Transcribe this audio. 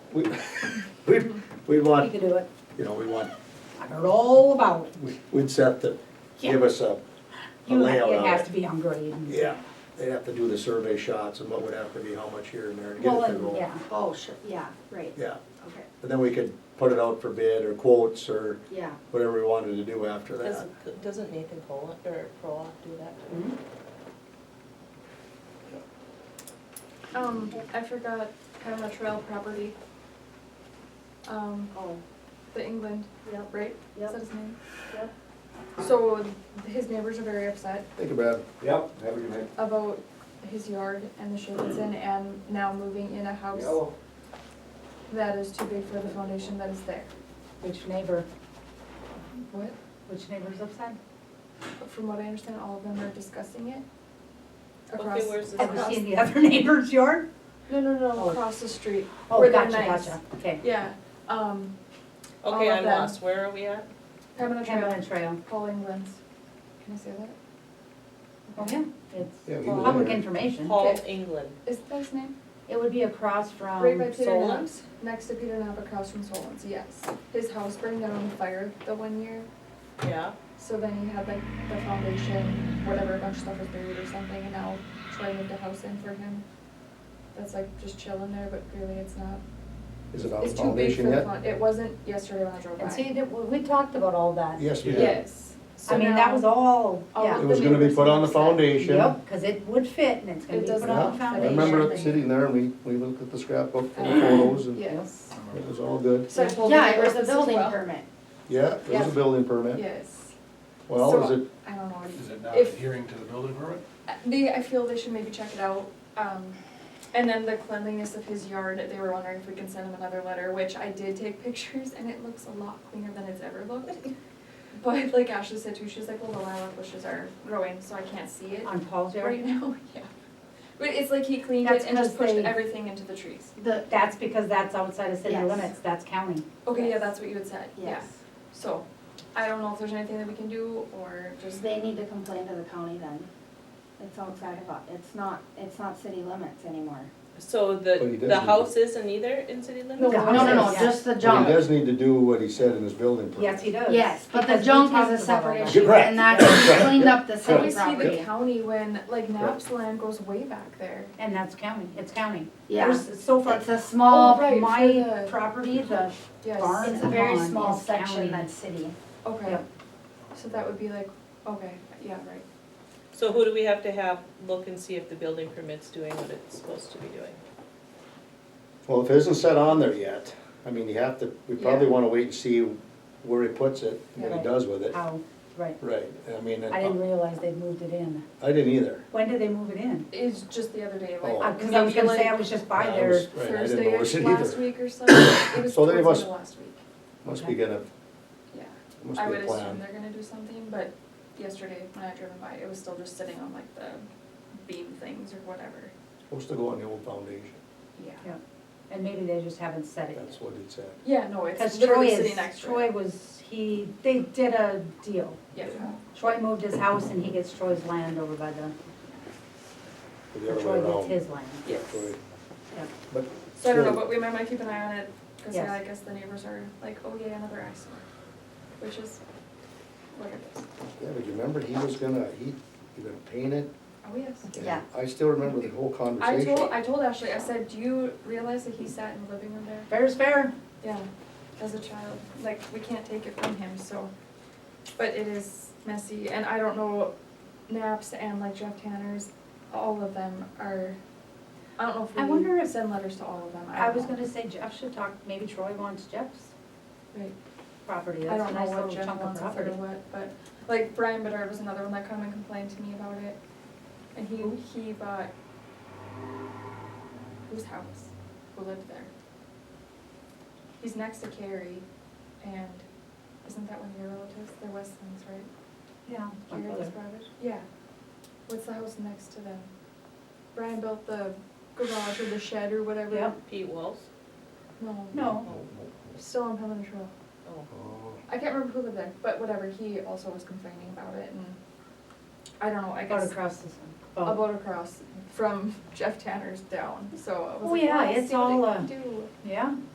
we, we, we We want, could do it. you know, we want, I heard all about it. we- we'd set to give us a, a You, layout it on has it. to be on grade. and- Yeah, they'd have to do the survey shots and what would have to be, how much here and there to get Well, it to and- roll. yeah, Oh, sure, yeah, right, Yeah, okay, and then we could put it out for bid or quotes or yeah. whatever we wanted to do after that. Doesn't, doesn't Nathan Poland, or Prolock do that? Hmm? Um, I forgot Panama Trail property. Um, Oh, the England, yep, right? Is that yep, his name? yep. So his neighbors are very upset Think about it. Yep, have a good night. about his yard and the shape it's in and now moving in a house Yellow. that is too big for the foundation that is there. Which neighbor, What? which neighbor's upside? From what I understand, all of them are discussing it. Okay, Across. where's this Have you across- seen the other neighbor's yard? No, no, no, Oh. across the street. Oh, where they're gotcha, nice. gotcha, okay. Yeah, um, all Okay, of I'm them. lost, where are we at? Pembina Trail, Pembina Trail, Paul England's. Can I say that? oh yeah, it's Yeah, we Well, live public there. information. Paul, Okay. England. Is that his name? It would be across from Right by Peter Solon. Knapp's, next to Peter Knapp across from Solon's, yes. His house burned down on fire the one year, yeah? so then he had like the foundation, whatever, a bunch of stuff was buried or something, and now Troy moved a house in for him. That's like just chilling there, but really it's not, Is it on the it's too big for foundation the yet? fun, it wasn't yesterday when I drove by. And see, that- we we talked about all that. Yes, we did. Yes, so I mean, that now was all, all yeah. of It was gonna be put on the Yep. foundation. Yep, because it would fit and it's gonna It be does put not on the fit. I I foundation. remember it sitting there, and we, we looked at the scrapbook for the Uh, photos, and it Yes. was all good. So I told the Yeah, it was neighbors a as building well. permit. Yeah, it was Yeah. a building permit. Yes, Well, is So- it, I don't know what he Is it not If- adhering to the building permit? They, I feel they should maybe check it out. Um, and then the cleanliness of his yard, they were wondering if we can send him another letter, which I did take pictures and it looks a lot cleaner than it's ever looked. But like Ashley said too, she's like, well, the lilac bushes are growing, so I can't see it On Paul's yard? right now, yeah. But it's like he cleaned That's it and 'cause just pushed they- everything into the trees. The, That's because that's outside of city Yes. limits, that's county. Okay, yeah, Yes. that's what you had said, yeah. yes, So, I don't know if there's anything that we can do or just, they need to complain to the county then. It's outside of, our- it's not, it's not city limits anymore. So But he the, does the need- house isn't either in city limits? No, No, no, no, Yeah. just the but junk. he does need to do what he said in his building permit. Yes, he does. Yes, but the Because we junk talked is a about all separate that. issue, and that's cleaned up the I city always see the property. county when, like, Naps land goes way back there. And that's county, it's county. Yeah, There's so far, it's a all small, right, for my the- property, the Yes. barn it's a very Barn small is county. section that's city. Okay, Yep. so that would be like, okay, yeah, right. So who do we have to have look and see if the building permit's doing what it's supposed to be doing? Well, if it isn't set on there yet, I mean, you have to, we probably Yeah. wanna wait and see where he puts it, and what he Right. does with it. how, right. Right, I mean, I didn't I realize they'd moved it in. didn't either. When did they move it in? It's just the other day, Oh. like. Because I was gonna say, I was just by I there. was- right, I didn't Thursday notice it last either. week or something, it was So towards they the end must- of last week, Must be gonna, yeah. must I be would a assume plan. they're gonna do something, but yesterday when I driven by, it was still just sitting on like the beam things or whatever, Supposed to go on the old foundation, yeah. Yeah. And maybe they just haven't set it that's yet. what it said. Yeah, no, it's Because Troy literally sitting is, next to Troy it, was, he, they did a deal. yeah. Troy moved his house and he gets Troy's land over by the, Or The other way Troy gets around. his land. Yeah, Yes. Troy. Yep. But So I don't know, Sure. but we might wanna keep an eye on it, cause yeah, Yes. I guess the neighbors are like, oh yeah, another eyesore, which is what it is. Yeah, but you remember, he was gonna, he, he gonna paint it? Oh, yes. and Yeah. I still remember the whole I conversation. told, I told Ashley, I said, do you realize that he sat in the living room there? Fair's fair. Yeah, as a child, like, we can't take it from him, so. But it is messy, and I don't know, Naps and like Jeff Tanner's, all of them are, I don't know if we. I wonder if- Send letters to all of them, I I don't was know. gonna say Jeff should talk, maybe Troy wants Jeff's Right. property, I that's a don't know nice what little Jeff chunk of wants or property. what, but, like, Brian Bedard was another one that come and complained to me about it. And he, he bought, whose house, who lived there? He's next to Carrie, and isn't that one of your relatives? They're Westlings, right? Yeah. my Carrie was brother. Robert? Yeah. What's the house next to them? Brian built the garage or the shed or whatever. Yep. Pete Walls? No, No, Oh, still on Pelican Trail. oh. Oh, I can't remember who lived there, but whatever, he also was complaining about it and I don't know, I about guess across this one. a About- boat across from Jeff Tanner's down, so I was Oh, like, yeah, "Well, let's it's see what it all, can uh, do." Yeah.